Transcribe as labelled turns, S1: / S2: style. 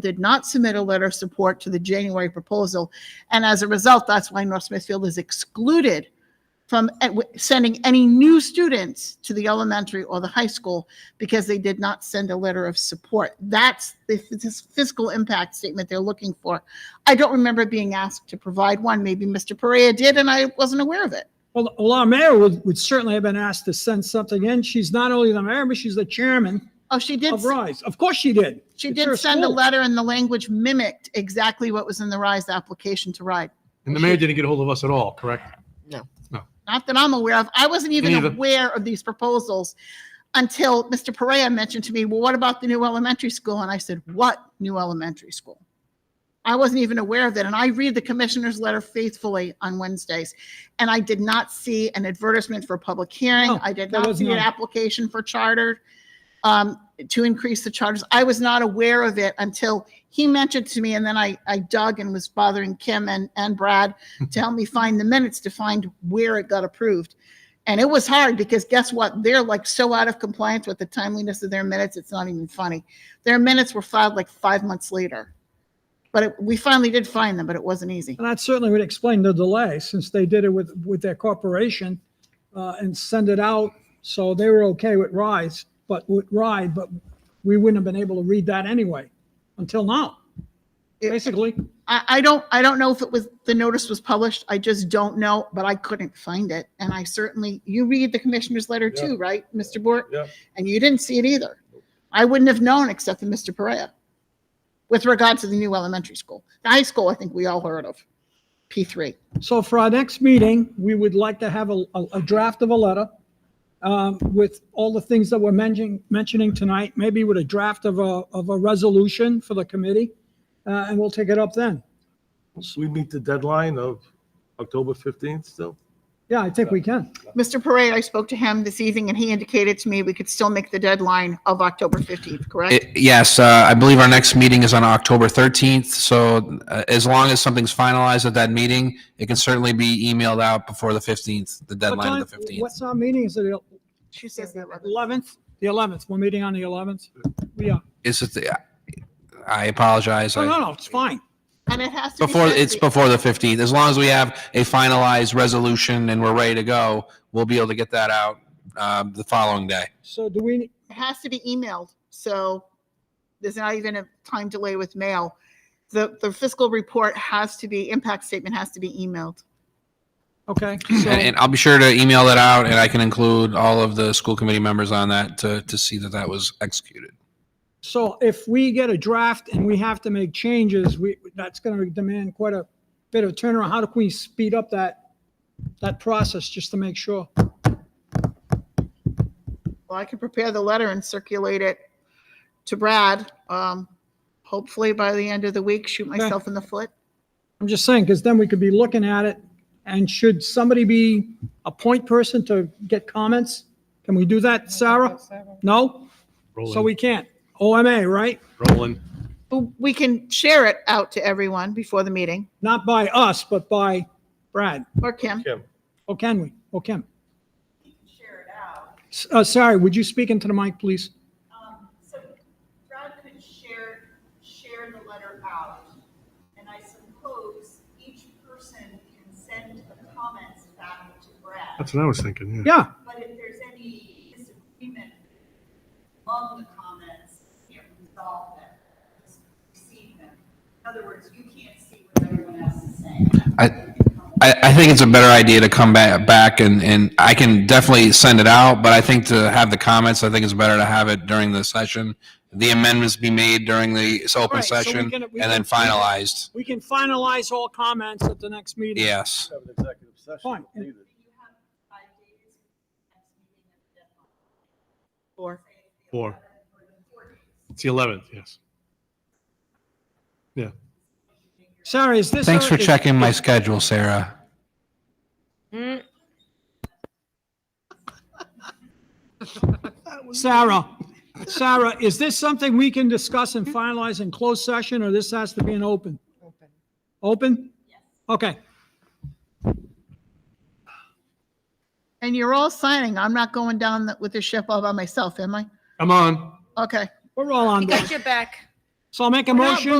S1: did not submit a letter of support to the January proposal. And as a result, that's why North Smithfield is excluded from eh, w- sending any new students to the elementary or the high school because they did not send a letter of support. That's the f- this fiscal impact statement they're looking for. I don't remember being asked to provide one. Maybe Mr. Perea did, and I wasn't aware of it.
S2: Well, well, our mayor would, would certainly have been asked to send something in. She's not only the mayor, but she's the chairman
S1: Oh, she did,
S2: of
S1: s-
S2: RISE. Of course she did.
S1: she
S2: It's her
S1: did send a
S2: school.
S1: letter, and the language mimicked exactly what was in the RISE application to RIDE.
S3: And the mayor didn't get a hold of us at all, correct?
S1: not that I'm aware of. I wasn't even
S3: neither.
S1: aware of these proposals until Mr. Perea mentioned to me, well, what about the new elementary school? And I said, what new elementary school? I wasn't even aware of it. And I read the commissioner's letter faithfully on Wednesdays. And I did not see an advertisement for public hearing.
S2: No,
S1: I did
S2: Oh, there
S1: not
S2: was
S1: see an
S2: none.
S1: application for charter um, to increase the charters. I was not aware of it until he mentioned to me. And then I, I dug and was bothering Kim and, and Brad to help me find the minutes to find where it got approved. And it was hard because guess what? They're like so out of compliance with the timeliness of their minutes, it's not even funny. Their minutes were filed like five months later. But it- we finally did find them, but it wasn't easy.
S2: And that certainly would explain the delay since they did it with, with their corporation uh, and send it out. So they were okay with RISE, but with RIDE, but we wouldn't have been able to read that anyway until now,
S1: It-
S2: basically.
S1: I, I don't, I don't know if it was, the notice was published. I just don't know, but I couldn't find it. And I certainly, you read the commissioner's letter too, right, Mr. Bort?
S3: Yeah.
S1: And you didn't see it either. I wouldn't have known except for Mr. Perea with regard to the new elementary school. The high school, I think we all heard of, P3.
S2: So for our next meeting, we would like to have a, a a draft of a letter um, with all the things that we're mentioning, mentioning tonight, maybe with a draft of a, of a resolution for the committee, uh, and we'll take it up then.
S4: We meet the deadline of October 15th still?
S2: Yeah, I think we can.
S1: Mr. Perea, I spoke to him this evening and he indicated to me we could still make the deadline of October 15th, correct?
S5: It- Yes, uh, I believe our next meeting is on October 13th, so uh, as long as something's finalized at that meeting, it can certainly be emailed out before the 15th, the
S2: What
S5: deadline
S2: time-
S5: of the 15th.
S2: What's our meeting? Is it the
S1: She says that.
S2: 11th? The 11th, we're meeting on the 11th? Yeah.
S5: Is it, the- uh, I apologize,
S2: Oh, No, no,
S5: I-
S2: no, it's fine.
S1: And it has to be.
S5: before,
S1: sent
S5: it's
S1: the-
S5: before the 15th, as long as we have a finalized resolution and we're ready to go, we'll be able to get that out um, the following day.
S2: So do we,
S1: It has to be emailed, so there's not even a time delay with mail. The, the fiscal report has to be, impact statement has to be emailed.
S2: okay,
S5: And
S2: so,
S5: and I'll be sure to email that out, and I can include all of the school committee members on that to, to see that that was executed.
S2: so if we get a draft and we have to make changes, we, that's going to demand quite a bit of turnaround. How do we speed up that, that process just to make sure?
S1: Well, I can prepare the letter and circulate it to Brad, um, hopefully by the end of the week, shoot myself in the foot.
S2: I'm just saying, because then we could be looking at it, and should somebody be a point person to get comments? Can we do that, Sarah? No? So we can't. OMA, right?
S3: Rolling.
S1: But We can share it out to everyone before the meeting,
S2: Not by us, but by Brad,
S1: or Kim.
S4: Kim,
S2: or can we, or Kim? S- Uh, sorry, would you speak into the mic, please?
S6: Um, So Brad could share, share the letter out, and I suppose each person can send the comments back to Brad.
S3: That's what I was thinking, yeah.
S2: Yeah,
S6: But if there's any disagreement among the comments, you can't resolve them, just receive them. In other words, you can't see what everyone else is saying.
S5: I- I, I think it's a better idea to come back, back and, and I can definitely send it out, but I think to have the comments, I think it's better to have it during the session. The amendments be made during the s- open
S2: Right, so we
S5: session
S2: can-
S5: and
S2: we
S5: then
S2: can-
S5: finalized.
S2: we can finalize all comments at the next meeting.
S5: Yes.
S4: have an executive session.
S2: Fine.
S4: if needed.
S6: You have five days, next meeting and deadline.
S1: Or
S3: Four. It's the 11th, yes. Yeah.
S2: Sarah, is this?
S5: Thanks
S2: our-
S5: for
S2: is-
S5: checking my schedule, Sarah.
S2: Sarah, Sarah, is this something we can discuss and finalize in closed session, or this has to be an open? Open. Open? Okay.
S1: And you're all signing. I'm not going down the- with the ship all by myself, am I?
S3: I'm on.
S1: Okay.
S2: We're all on board.
S7: Got your back.
S2: So I'll make a
S1: We're not
S2: motion